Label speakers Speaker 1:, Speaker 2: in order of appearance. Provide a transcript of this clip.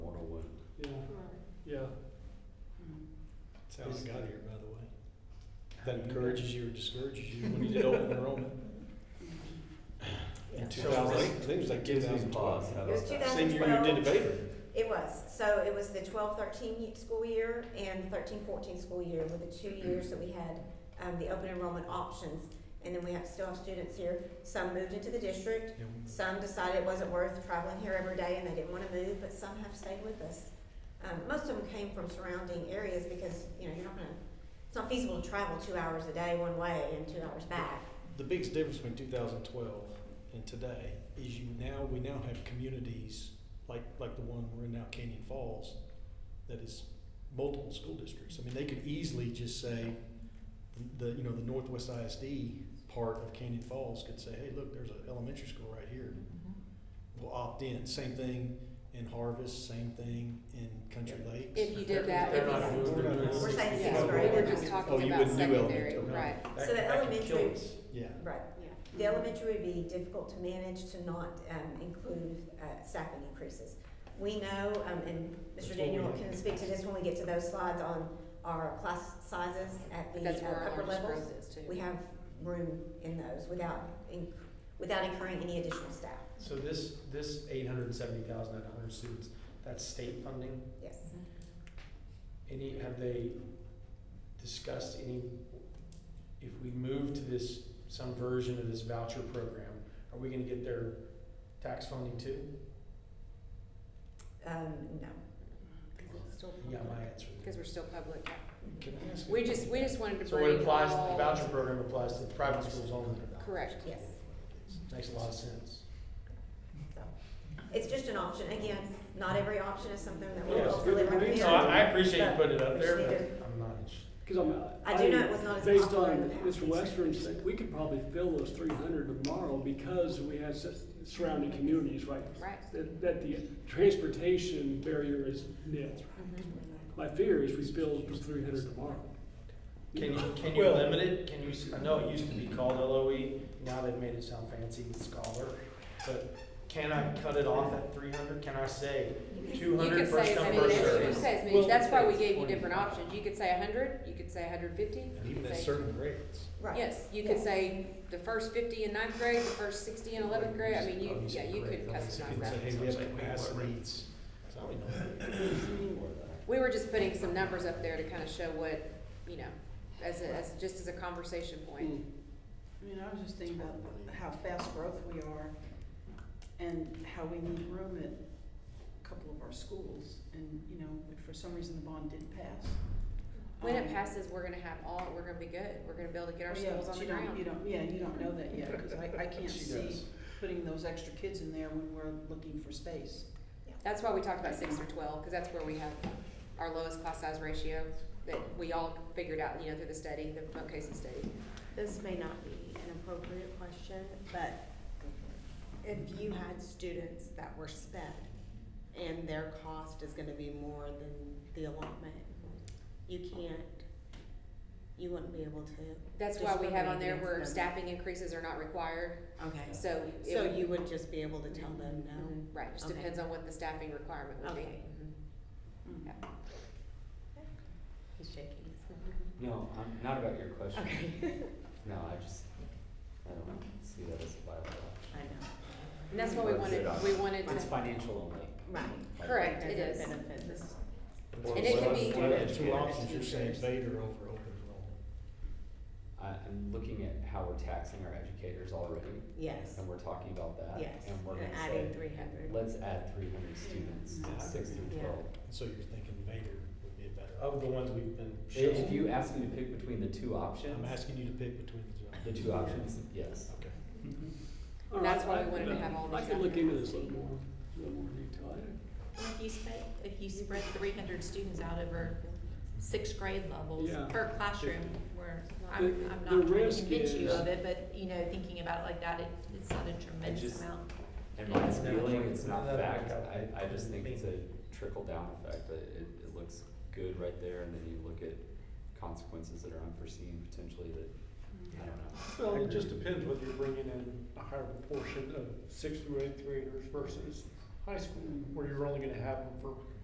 Speaker 1: Yeah,
Speaker 2: That's how
Speaker 3: Is
Speaker 2: I got
Speaker 3: the-
Speaker 2: here, by the way. That encourages you or discourages you when you did open enrollment in
Speaker 4: Yeah.
Speaker 2: two thousand, I think it was like two
Speaker 3: Gives me
Speaker 2: thousand
Speaker 3: pause.
Speaker 2: twelve.
Speaker 3: How
Speaker 4: It was
Speaker 3: about that?
Speaker 4: 2000.
Speaker 2: Same year you did
Speaker 4: 2012.
Speaker 2: a Baylor.
Speaker 4: It was, so it was the 12-13 school year and 13-14 school year were the two years that we had, um, the open enrollment options. And then we have, still have students here, some moved into the district, some decided it wasn't worth traveling here every day and they didn't wanna move, but some have stayed with us. Um, most of them came from surrounding areas because, you know, you're not gonna, it's not feasible to travel two hours a day one way and two hours back.
Speaker 2: The biggest difference between two thousand twelve and today is you now, we now have communities like, like the one we're in now, Canyon Falls, that is multiple school districts. I mean, they could easily just say, the, you know, the Northwest ISD part of Canyon Falls could say, hey, look, there's an elementary school right here. will opt in. Same thing in Harvest, same thing in Country Lakes.
Speaker 5: If you did that,
Speaker 1: They're
Speaker 5: if
Speaker 1: not
Speaker 5: you,
Speaker 1: doing
Speaker 2: We're not
Speaker 1: it.
Speaker 2: doing
Speaker 4: We're saying
Speaker 5: yeah,
Speaker 4: sixth grade.
Speaker 5: we were just
Speaker 2: Oh,
Speaker 5: talking
Speaker 2: you
Speaker 5: about
Speaker 2: wouldn't do
Speaker 5: secondary,
Speaker 2: elementary, okay.
Speaker 5: right?
Speaker 4: So
Speaker 3: That-
Speaker 4: the
Speaker 3: that could kill
Speaker 4: elementary-
Speaker 3: us.
Speaker 2: Yeah.
Speaker 4: Right.
Speaker 5: Yeah.
Speaker 4: The elementary would be difficult to manage to not um, include uh, staffing increases. We know, um, and
Speaker 2: That's
Speaker 4: Mr.
Speaker 2: what
Speaker 4: Daniel
Speaker 2: we-
Speaker 4: can speak to this when we get to those slides on our class sizes at the
Speaker 5: That's where
Speaker 4: uh,
Speaker 5: our
Speaker 4: upper
Speaker 5: largest
Speaker 4: levels.
Speaker 5: growth is too.
Speaker 4: We have room in those without, inc- without incurring any additional staff,
Speaker 1: so this, this eight hundred and seventy thousand nine hundred students, that's state funding?
Speaker 4: yes.
Speaker 1: Any, have they discussed any, if we move to this, some version of this voucher program, are we gonna get their tax funding too?
Speaker 4: Um, no.
Speaker 1: You got my answer.
Speaker 5: Because we're still public.
Speaker 2: Can I ask
Speaker 5: We
Speaker 2: you-
Speaker 5: just, we just wanted to
Speaker 1: So what
Speaker 5: bring
Speaker 1: applies, the
Speaker 5: all.
Speaker 1: voucher program applies to private schools only?
Speaker 5: Correct.
Speaker 4: Yes.
Speaker 1: Makes a lot of sense.
Speaker 4: So, it's just an option. Again, not every option is something that we
Speaker 1: Yes.
Speaker 4: will deliver.
Speaker 1: No, I, I appreciate you
Speaker 4: But
Speaker 1: putting it up
Speaker 4: we
Speaker 1: there,
Speaker 4: just need
Speaker 1: but I'm not interested.
Speaker 6: Because I'm,
Speaker 4: I do know it was not as
Speaker 6: based
Speaker 4: popular in
Speaker 6: on
Speaker 4: the past.
Speaker 6: Mr. Western's, we could probably fill those three hundred tomorrow because we have su- surrounding communities, right?
Speaker 5: Right.
Speaker 6: That, that the transportation barrier is nil. My fear is we fill the three hundred tomorrow.
Speaker 1: Can you, can you
Speaker 2: Well-
Speaker 1: limit it? Can you, s- I know it used to be called LOE, now they've made it sound fancy with scholar, but can I cut it off at three hundred? Can I say two
Speaker 5: Mm-hmm. You could
Speaker 1: hundred
Speaker 5: say
Speaker 1: first
Speaker 5: as
Speaker 1: come,
Speaker 5: many,
Speaker 1: first
Speaker 5: as- you
Speaker 1: served?
Speaker 5: could say as
Speaker 2: Well-
Speaker 5: many, that's why we gave you different options. You could say hundred, you could say hundred fifty.
Speaker 2: And even at certain grades.
Speaker 4: Right.
Speaker 5: Yes, you could
Speaker 4: Yeah.
Speaker 5: say the first fifty in ninth grade, the first sixty in eleventh grade. I mean, you, yeah, you could
Speaker 2: You
Speaker 5: customize
Speaker 2: can say,
Speaker 5: that.
Speaker 2: hey, we
Speaker 1: Sounds
Speaker 2: have
Speaker 1: like we have
Speaker 2: capacity.
Speaker 1: rates.
Speaker 2: So I don't know.
Speaker 5: We were just putting some numbers up there to kind of show what, you know, as a, as, just as a conversation point.
Speaker 6: Mm.
Speaker 7: I mean, I was just thinking about how fast growth we are and how we need room at a couple of our schools. And, you know, if for some reason the bond didn't pass.
Speaker 5: When it
Speaker 7: um, oh,
Speaker 5: passes, we're gonna have all, we're gonna be good. We're gonna be able to get our
Speaker 8: Oh,
Speaker 7: yeah,
Speaker 5: schools
Speaker 7: but
Speaker 5: on the
Speaker 7: you don't-
Speaker 5: ground.
Speaker 7: You don't, yeah, you don't know that yet, because I, I can't
Speaker 1: She
Speaker 7: see
Speaker 1: does.
Speaker 7: putting those extra kids in there when we're looking for space.
Speaker 5: That's why we talked about six through twelve, because that's where we have our lowest class size ratio that we all figured out, you know, through the study, the Mount Casey study.
Speaker 8: This may not be an appropriate question, but if you had students that were sped and their cost is gonna be more than the allotment, you can't, you wouldn't be able to,
Speaker 5: That's why we have on there where
Speaker 8: Discriminating.
Speaker 5: staffing increases are not required,
Speaker 8: okay.
Speaker 5: so. it
Speaker 8: So
Speaker 5: would-
Speaker 8: you would just be able to tell them no?
Speaker 5: Mhm, Right, just
Speaker 8: Okay.
Speaker 5: depends on what the staffing requirement would be.
Speaker 8: Okay. Mm-hmm.
Speaker 7: Mm.
Speaker 5: Yeah.
Speaker 8: He's shaking
Speaker 3: No, I'm not about your
Speaker 8: his
Speaker 3: question.
Speaker 8: head. Okay.
Speaker 3: No, I just, I don't see that as a viable option.
Speaker 8: I know,
Speaker 5: And that's what we
Speaker 3: Or is
Speaker 5: wanted,
Speaker 3: it a-
Speaker 5: we wanted
Speaker 3: It's
Speaker 5: to,
Speaker 3: financial only.
Speaker 8: right.
Speaker 3: Like,
Speaker 5: correct,
Speaker 8: There's
Speaker 5: it
Speaker 8: a
Speaker 5: is.
Speaker 8: benefit. This is-
Speaker 2: Well,
Speaker 5: And it
Speaker 2: well,
Speaker 5: could be-
Speaker 2: well, that's Two options, you're saying Vader over open enrollment.
Speaker 3: I, I'm looking at how we're taxing our educators already,
Speaker 8: Yes,
Speaker 3: and we're talking about that.
Speaker 8: yes,
Speaker 3: Uh, And we're
Speaker 8: and
Speaker 3: gonna
Speaker 8: adding
Speaker 3: say,
Speaker 8: three hundred.
Speaker 3: let's add three hundred students
Speaker 2: Yeah.
Speaker 3: to six through
Speaker 8: Yeah.
Speaker 3: twelve.
Speaker 2: And so you're thinking Vader would be a better. option.
Speaker 1: Of the ones we've been
Speaker 3: I-
Speaker 1: shown.
Speaker 3: If you ask me to pick between the two
Speaker 2: I'm
Speaker 3: options,
Speaker 2: asking you to pick between
Speaker 3: the
Speaker 2: the two.
Speaker 3: two options, yes.
Speaker 2: Okay.
Speaker 6: All right,
Speaker 5: That's why we
Speaker 6: I-
Speaker 5: wanted to have all
Speaker 6: I
Speaker 5: these
Speaker 6: could
Speaker 5: on
Speaker 6: look
Speaker 5: there.
Speaker 6: into this a little more, a little more detail. I-
Speaker 9: If you spread, if you spread three hundred students out over six grade levels
Speaker 6: Yeah.
Speaker 9: per classroom, where I'm,
Speaker 6: The-
Speaker 9: I'm
Speaker 6: the
Speaker 9: not trying to
Speaker 6: risk
Speaker 9: convince you
Speaker 6: is-
Speaker 9: of it, but, you know, thinking about it like that, it, it's not a tremendous
Speaker 3: just-
Speaker 9: amount.
Speaker 3: And my
Speaker 1: It's never
Speaker 3: feeling,
Speaker 1: like-
Speaker 3: it's not
Speaker 1: never like
Speaker 3: fact,
Speaker 1: that.
Speaker 3: I, I just think it's a trickle down effect, that it, it looks good right there, and then you look at consequences that are unforeseen potentially that, I don't know.
Speaker 10: Well,
Speaker 3: I
Speaker 10: it just
Speaker 3: agree.
Speaker 10: depends whether you're bringing in a higher proportion of sixth through eighth graders versus high school, where you're only gonna have them for